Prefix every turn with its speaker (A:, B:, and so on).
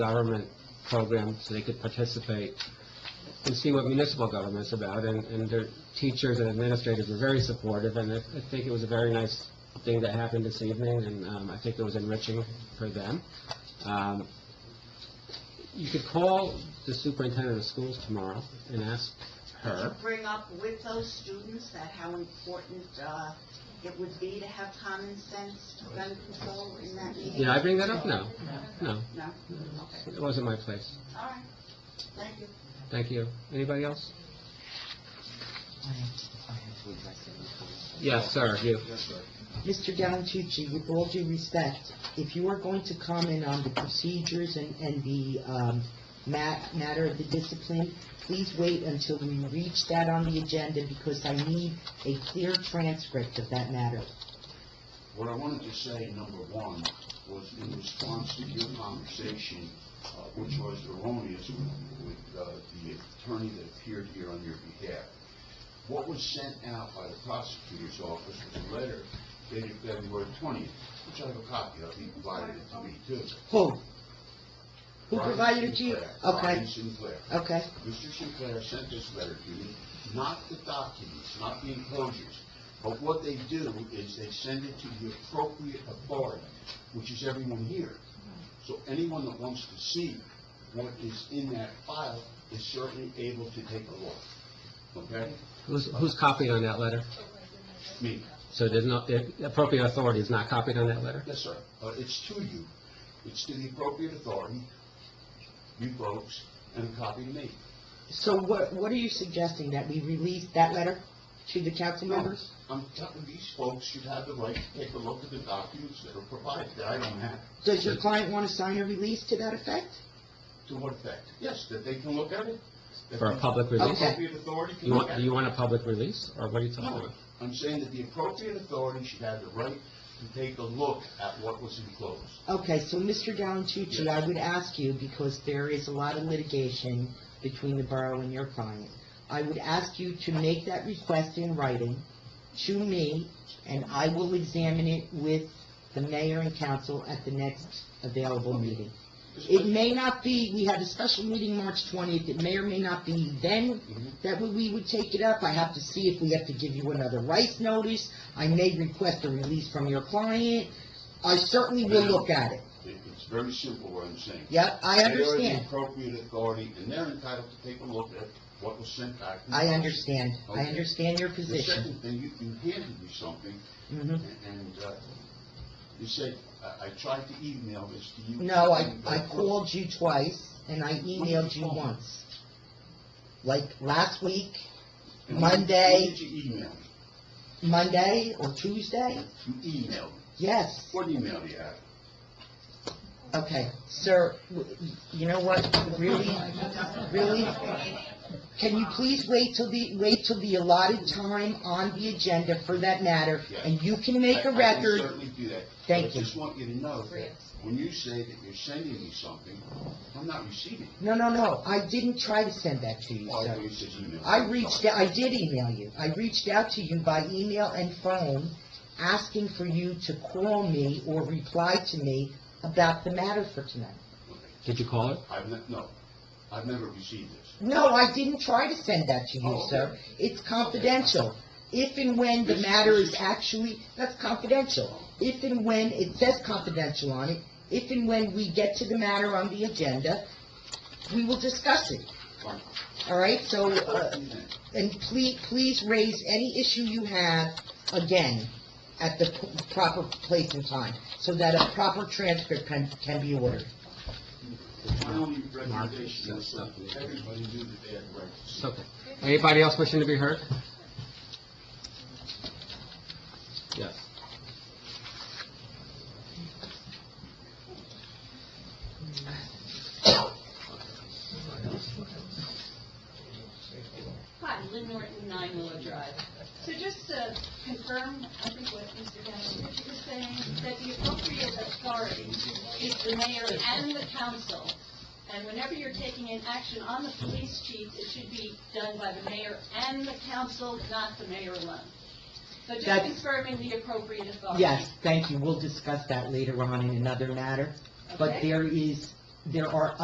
A: government program so they could participate and see what municipal government's about, and, and their teachers and administrators were very supportive, and I I think it was a very nice thing that happened this evening, and, um, I think it was enriching for them. Um, you could call the superintendent of schools tomorrow and ask
B: Did you
A: her.
B: bring up with those students that how important uh, it would be to have common sense gun control in that meeting?
A: Did I bring that up? No, no,
B: No? Okay,
A: it wasn't my place.
B: all right, thank you.
A: Thank you. Anybody else? Yes, sir, you.
C: Mr. Gallantucci, with all due respect, if you are going to comment on the procedures and, and the, um, ma- matter of the discipline, please wait until we reach that on the agenda, because I need a clear transcript of that matter.
D: What I wanted to say, number one, was in response to your conversation, uh, which was erroneous with- with uh, the attorney that appeared here on your behalf. What was sent out by the prosecutor's office was a letter dated February 20th, which I have a copy of, he provided it to me too.
C: Who? Who provided it to you?
D: Brian Sinclair,
C: Okay,
D: Brian Sinclair.
C: okay,
D: Mr. Sinclair sent this letter to me, not the documents, not the enclosures, but what they do is they send it to the appropriate authority, which is everyone here. So anyone that wants to see what is in that file is certainly able to take a look, okay?
A: Who's, who's copied on that letter?
D: Me,
A: So there's no, the appropriate authority is not copied on that letter?
D: yes, sir, Uh, it's to you, it's to the appropriate authority, you folks, and a copy to me.
C: so what, what are you suggesting, that we release that letter to the council members?
D: I'm telling these folks should have the right to take a look at the documents that are provided that I don't have.
C: Does your client wanna sign a release to that effect?
D: To what effect? Yes, that they can look at it. that
A: For a
D: the
A: public release?
D: Appropriate authority can
A: You
D: look
A: want,
D: at
A: do you
D: it.
A: want a public release, or what are you talking
D: No,
A: about?
D: I'm saying that the appropriate authority should have the right to take a look at what was enclosed.
C: Okay, so Mr. Gallantucci, I would ask you, because there is a lot of litigation between the borough and your client, I would ask you to make that request in writing to me, and I will examine it with the mayor and council at the next available meeting. It may not be, we had a special meeting March 20th, it may or may not be then
D: Mhm.
C: that we- we would take it up. I have to see if we have to give you another rights notice. I may request a release from your client. I certainly will look at it.
D: It- It's very simple what I'm saying.
C: Yep, I
D: They are the
C: understand.
D: appropriate authority, and they're entitled to take a look at what was sent back.
C: I understand. I
D: Okay.
C: understand your
D: The
C: position.
D: second thing, you you handed me something,
C: Mhm.
D: And uh, you said, I I tried to email this to you.
C: No, I, I called you twice, and I emailed you once. Like, last week,
D: And when-
C: Monday.
D: When did you email me?
C: Monday or Tuesday?
D: You emailed me.
C: Yes.
D: What email do you have?
C: Okay, sir, w- you know what, really, really? Can you please wait till the, wait till the allotted time on the agenda for that matter? And you can make
D: I-
C: a
D: I can
C: record,
D: certainly do that.
C: Thank
D: But I
C: you.
D: just want you to know that when you say that you're sending me something, I'm not receiving it.
C: no, no, no, I didn't try to send that to you,
D: Well,
C: sir.
D: I thought you said email.
C: I reached, I did email you. I reached out to you by email and phone, asking for you to call me or reply to me about the matter for tonight.
A: Did you call it?
D: I've, ne- no, I've never received this.
C: No, I didn't try to send that to you,
D: Oh,
C: sir. It's confidential. If and when the matter is actually, that's confidential. If and when, it says confidential on it, if and when we get to the matter on the agenda, we will discuss it,
D: Fine.
C: all right? So, uh,
D: Do that.
C: and please, please raise any issue you have again at the p- proper place and time, so that a proper transcript can, can be ordered.
D: My only recommendation is that everybody do the bad right.
A: It's okay. Anybody else wishing to be heard? Yes.
E: Hi, Lynn Norton, Nine Willow Drive. So just to confirm, I think what Mr. Gallantucci was saying, that the appropriate authority is the mayor and the council. And whenever you're taking an action on the police chief, it should be done by the mayor and the council, not the mayor alone. So just
C: That's-
E: confirming the appropriate authority.
C: Yes, thank you. We'll discuss that later on in another matter. But
E: Okay?
C: there is there are